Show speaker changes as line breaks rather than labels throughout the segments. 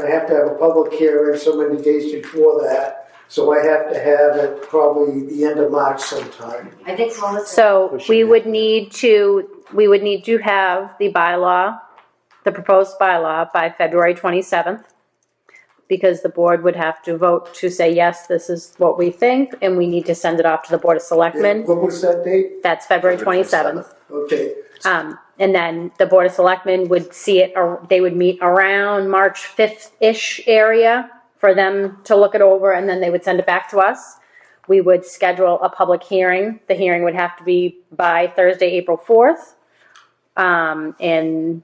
I have to have a public hearing so many days before that, so I have to have it probably the end of March sometime.
I think Melissa,
So we would need to, we would need to have the bylaw, the proposed bylaw by February 27th. Because the board would have to vote to say, yes, this is what we think, and we need to send it off to the Board of Selectmen.
What was that date?
That's February 27th.
Okay,
Um, and then the Board of Selectmen would see it, or they would meet around March 5th-ish area for them to look it over, and then they would send it back to us. We would schedule a public hearing. The hearing would have to be by Thursday, April 4th. Um, and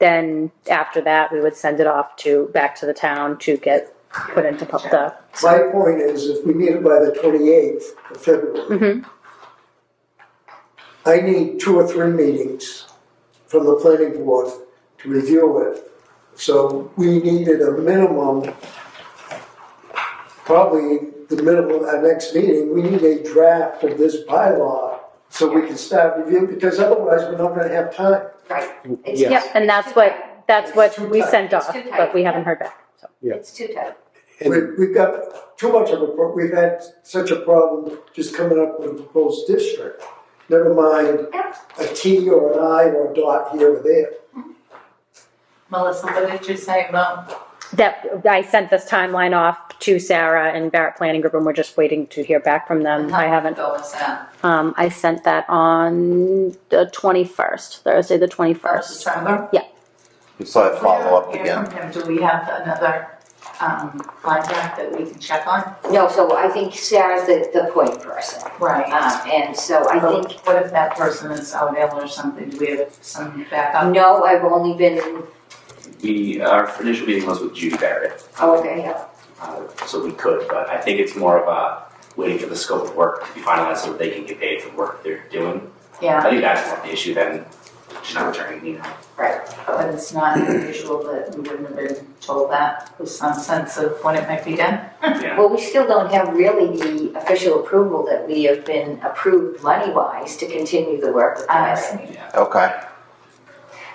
then after that, we would send it off to, back to the town to get put into pub- the
my point is if we need it by the twenty-eighth of February. I need two or three meetings from the planning board to review it. So we needed a minimum, probably the minimum, our next meeting, we need a draft of this bylaw so we can start reviewing, because otherwise we're not gonna have time.
right. It's-
Yep, and that's what, that's what we sent
It's
off,
too tight.
but we haven't heard back, so.
It's too tight.
We, we've got too much of a, pro- we've had such a problem just coming up with a proposed district. Never mind
Yep.
a T or an I or a dot here or there.
Melissa, what did you say about?
That, I sent this timeline off to Sarah and Barrett Planning Group, and we're just waiting to hear back from them. I haven't,
Bill was at?
um, I sent that on the twenty-first, Thursday, the
First
twenty-first.
December?
You saw it follow up again.
Yeah, Do we have another, um, contact that we can check on?
No, so I think Sarah's the, the point person.
Right.
Um, and so I
Uh, But
think,
What if that person is out ill or something? Do we have some backup?
um, no, I've only been,
We, our initial meeting was with Judy Barrett,
oh, okay, yeah.
uh, so we could, but I think it's more of a waiting for the scope of work to be finalized so that they can get paid for the work they're doing.
Yeah,
I think that's more of the issue than she's not returning, you know.
but it's not unusual that we wouldn't have been told that with some sense of when it might be done.
Yeah.
Well, we still don't have really the official approval that we have been approved money-wise to continue the work with
I
Myron.
see.
Okay.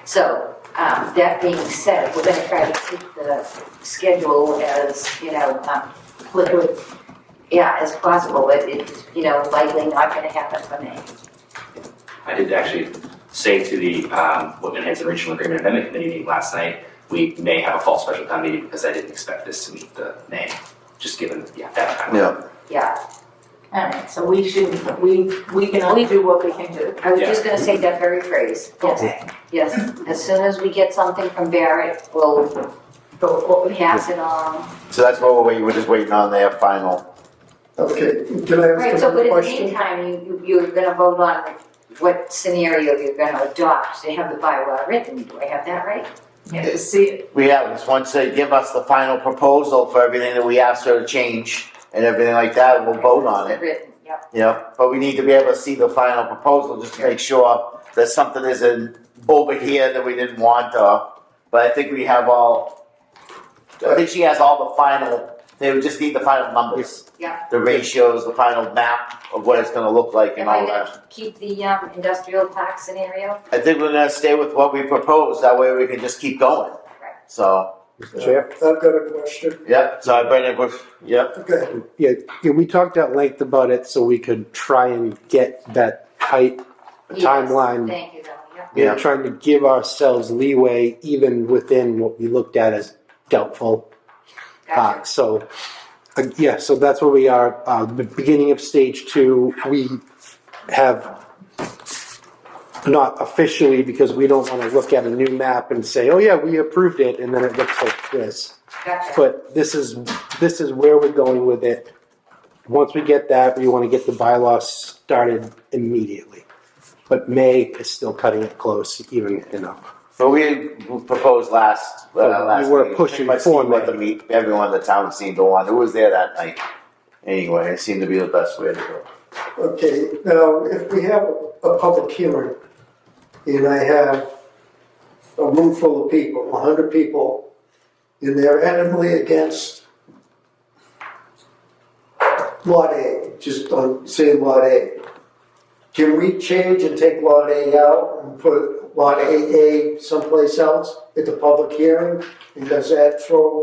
So, um, that being said, we're gonna try to keep the schedule as, you know, um, liquid, yeah, as possible, but it's, you know, likely not gonna happen for me.
I did actually say to the um, Whitman Hanson Regional Agreement Amendment Committee meeting last night, we may have a fall special town meeting because I didn't expect this to meet the May, just given, yeah, that time.
Yeah.
Yeah,
All right, so we should, we, we can only do what we can do.
I was just gonna say that very phrase,
Oh.
yes, yes. As soon as we get something from Barrett, we'll, we'll pass it on.
So that's what we were just waiting on their final.
Okay, can I
Right,
ask
so
another
but in the
question?
meantime, you, you- you're gonna vote on what scenario you're gonna adopt, they have the bylaw written, do I have that right?
Yeah, see,
We have this once they give us the final proposal for everything that we asked her to change and everything like that, we'll vote on it.
Written, yep.
Yeah. But we need to be able to see the final proposal just to make sure that something isn't over here that we didn't want. Uh, but I think we have all. I think she has all the final. They would just need the final numbers.
Yeah.
The ratios, the final map of what it's going to look like, and
Am I
all that.
gonna keep the um, industrial park scenario?
I think we're gonna stay with what we proposed, that way we can just keep going. So,
Mr. Chair,
I've got a question.
yep, so I bring it with, yep,
Okay,
yeah, yeah, we talked at length about it, so we could try and get that tight
Yes,
timeline.
Thank you, though, yeah.
We
Yeah.
We're trying to give ourselves leeway even within what we looked at as doubtful.
Gotcha.
Uh, so, uh, yeah, so that's where we are, uh, the beginning of stage two, we have not officially, because we don't wanna look at a new map and say, oh yeah, we approved it, and then it looks like this.
Ah.
Gotcha.
But this is, this is where we're going with it. Once we get that, we wanna get the bylaw started immediately. But May is still cutting it close, even enough.
but we proposed last, uh,
Oh, we
last.
were
meeting.
pushing
Pretty much
for
seemed what
May.
the meet, everyone in the town seemed to want, who was there that night? Anyway, it seemed to be the best way to go.
okay, now, if we have a public hearing, and I have a room full of people, a hundred people, and they're adamantly against Lot A, just on saying Lot A, can we change and take Lot A out and put Lot 8A someplace else at the public hearing? And does that throw